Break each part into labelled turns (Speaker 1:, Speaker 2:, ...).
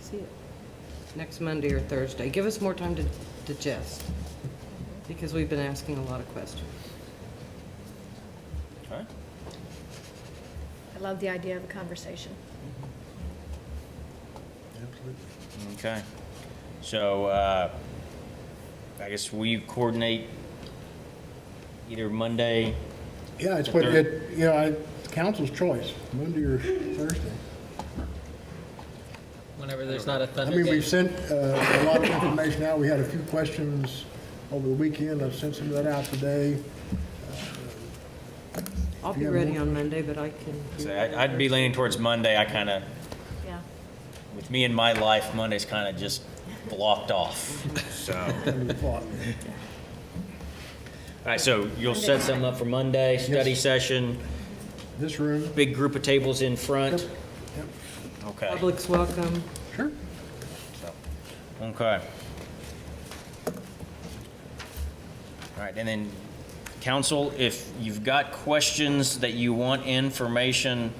Speaker 1: see it.
Speaker 2: next Monday or Thursday. Give us more time to digest, because we've been asking a lot of questions.
Speaker 3: Okay.
Speaker 4: I love the idea of a conversation.
Speaker 3: Okay. So, uh, I guess we coordinate either Monday,
Speaker 5: Yeah, it's
Speaker 3: The
Speaker 5: what,
Speaker 3: third.
Speaker 5: it, you know, I- it's council's choice, Monday or Thursday.
Speaker 6: Whenever there's not a
Speaker 5: I
Speaker 6: thunder
Speaker 5: mean,
Speaker 6: game.
Speaker 5: we've sent uh, a lot of information out. We had a few questions over the weekend. I've sent some of that out today.
Speaker 2: I'll be
Speaker 5: Yeah,
Speaker 2: ready
Speaker 5: more-
Speaker 2: on Monday, but I can. do
Speaker 3: so
Speaker 2: that.
Speaker 3: I- I'd be leaning towards Monday. I kind of,
Speaker 4: Yeah.
Speaker 3: with me and my life, Monday's kind of just blocked off. So, all
Speaker 5: and we thought,
Speaker 3: right, so you'll set something up for Monday, study session,
Speaker 5: This room,
Speaker 3: big group of tables in front. Okay.
Speaker 2: Public's welcome.
Speaker 5: sure.
Speaker 3: So, Okay. All right, and then, council, if you've got questions that you want information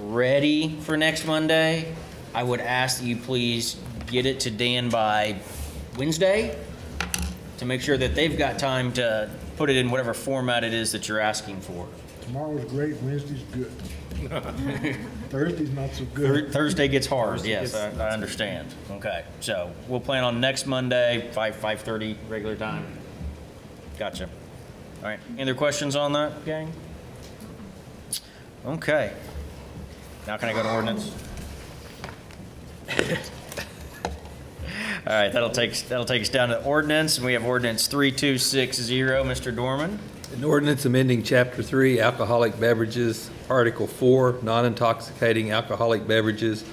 Speaker 3: ready for next Monday, I would ask that you please get it to Dan by Wednesday to make sure that they've got time to put it in whatever format it is that you're asking for.
Speaker 5: Tomorrow's great, Wednesday's good. Thursday's not so
Speaker 3: Thur-
Speaker 5: good.
Speaker 3: Thursday gets hard, yes, I I understand. Okay, so we'll plan on next Monday, 5, 5:30, regular time. Gotcha. All right, any other questions on that, gang? Okay. Now can I go to ordinance? All right, that'll take, that'll take us down to ordinance, and we have ordinance 3260, Mr. Dorman.
Speaker 7: An ordinance amending Chapter 3 Alcoholic Beverages, Article 4 Non-Intoxicating Alcoholic Beverages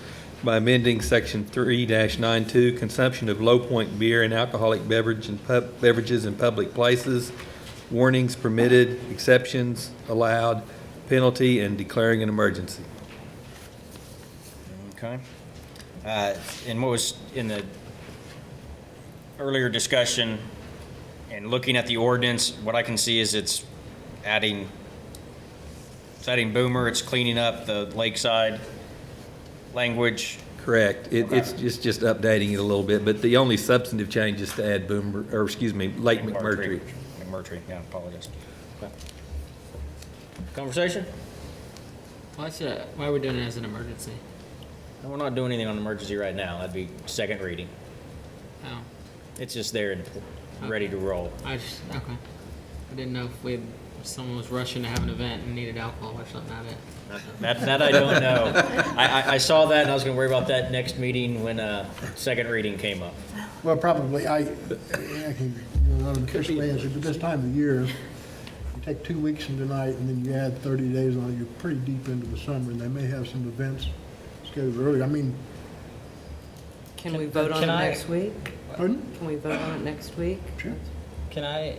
Speaker 7: by amending Section 3-92 Consumption of Low Point Beer and Alcoholic Beverage in pub- Beverages in Public Places, Warnings Permitted, Exceptions Allowed, Penalty, and declaring an emergency.
Speaker 3: Okay. Uh, And what was in the earlier discussion, and looking at the ordinance, what I can see is it's adding, it's adding Boomer, it's cleaning up the lakeside language.
Speaker 7: Correct. It- It's it's just updating it a little bit, but the only substantive change is to add Boomer, or excuse me, Lake
Speaker 3: and
Speaker 7: McMurtry.
Speaker 3: McMurtry, yeah, I apologize. Okay. Conversation?
Speaker 6: Why should, I- why are we doing it as an emergency?
Speaker 3: No, We're not doing anything on emergency right now, that'd be second reading.
Speaker 6: Oh,
Speaker 3: It's just there and ready to roll.
Speaker 6: I just, okay. I didn't know if we, had- if someone was rushing to have an event and needed alcohol or something out of it.
Speaker 3: That, that I don't know. I, I, I saw that and I was gonna worry about that next meeting when, uh, second reading came up.
Speaker 5: Well, probably, I, I can, you know, officially answer, but this time of year, you take two weeks from tonight, and then you add 30 days on it, you're pretty deep into the summer, and they may have some events scheduled early. I mean,
Speaker 2: Can we vote on it
Speaker 6: can I-
Speaker 2: next week?
Speaker 5: pardon?
Speaker 2: Can we vote on it next week?
Speaker 5: Sure.
Speaker 6: Can I,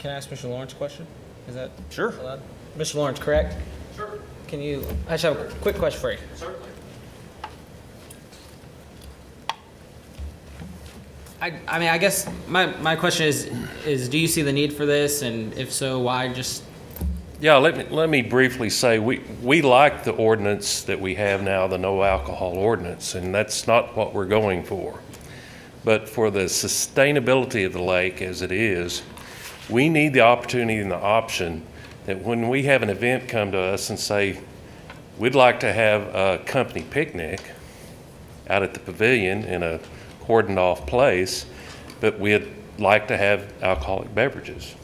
Speaker 6: can I ask Mr. Lawrence a question? Is that
Speaker 3: Sure.
Speaker 6: allowed? Mr. Lawrence, correct? Sure. Can you, I just have a quick question for you. Certainly. I, I mean, I guess my, my question is, is do you see the need for this? And if so, why just
Speaker 8: Yeah, let me, let me briefly say, we, we like the ordinance that we have now, the no alcohol ordinance, and that's not what we're going for. But for the sustainability of the lake as it is, we need the opportunity and the option that when we have an event come to us and say, we'd like to have a company picnic out at the pavilion in a cordoned-off place, but we'd like to have alcoholic beverages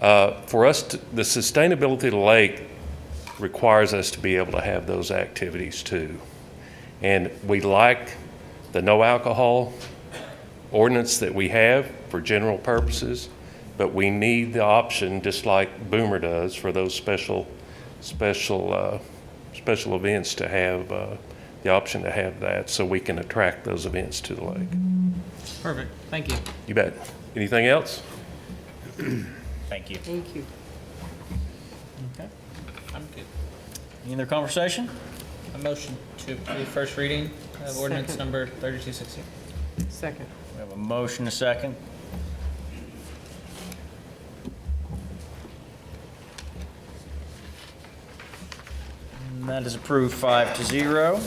Speaker 8: uh, for us, to- the sustainability of the lake requires us to be able to have those activities too. And we like the no alcohol ordinance that we have for general purposes, but we need the option, just like Boomer does, for those special, special, uh, special events to have, uh, the option to have that, so we can attract those events to the lake.
Speaker 6: Perfect. Thank you.
Speaker 8: You bet. Anything else?
Speaker 3: Thank you.
Speaker 2: Thank you.
Speaker 6: I'm good.
Speaker 3: Any other conversation?
Speaker 6: A motion to approve first reading of ordinance
Speaker 2: Second.
Speaker 6: number 3260.
Speaker 2: Second.
Speaker 3: We have a motion, a second. And that is approved five to zero.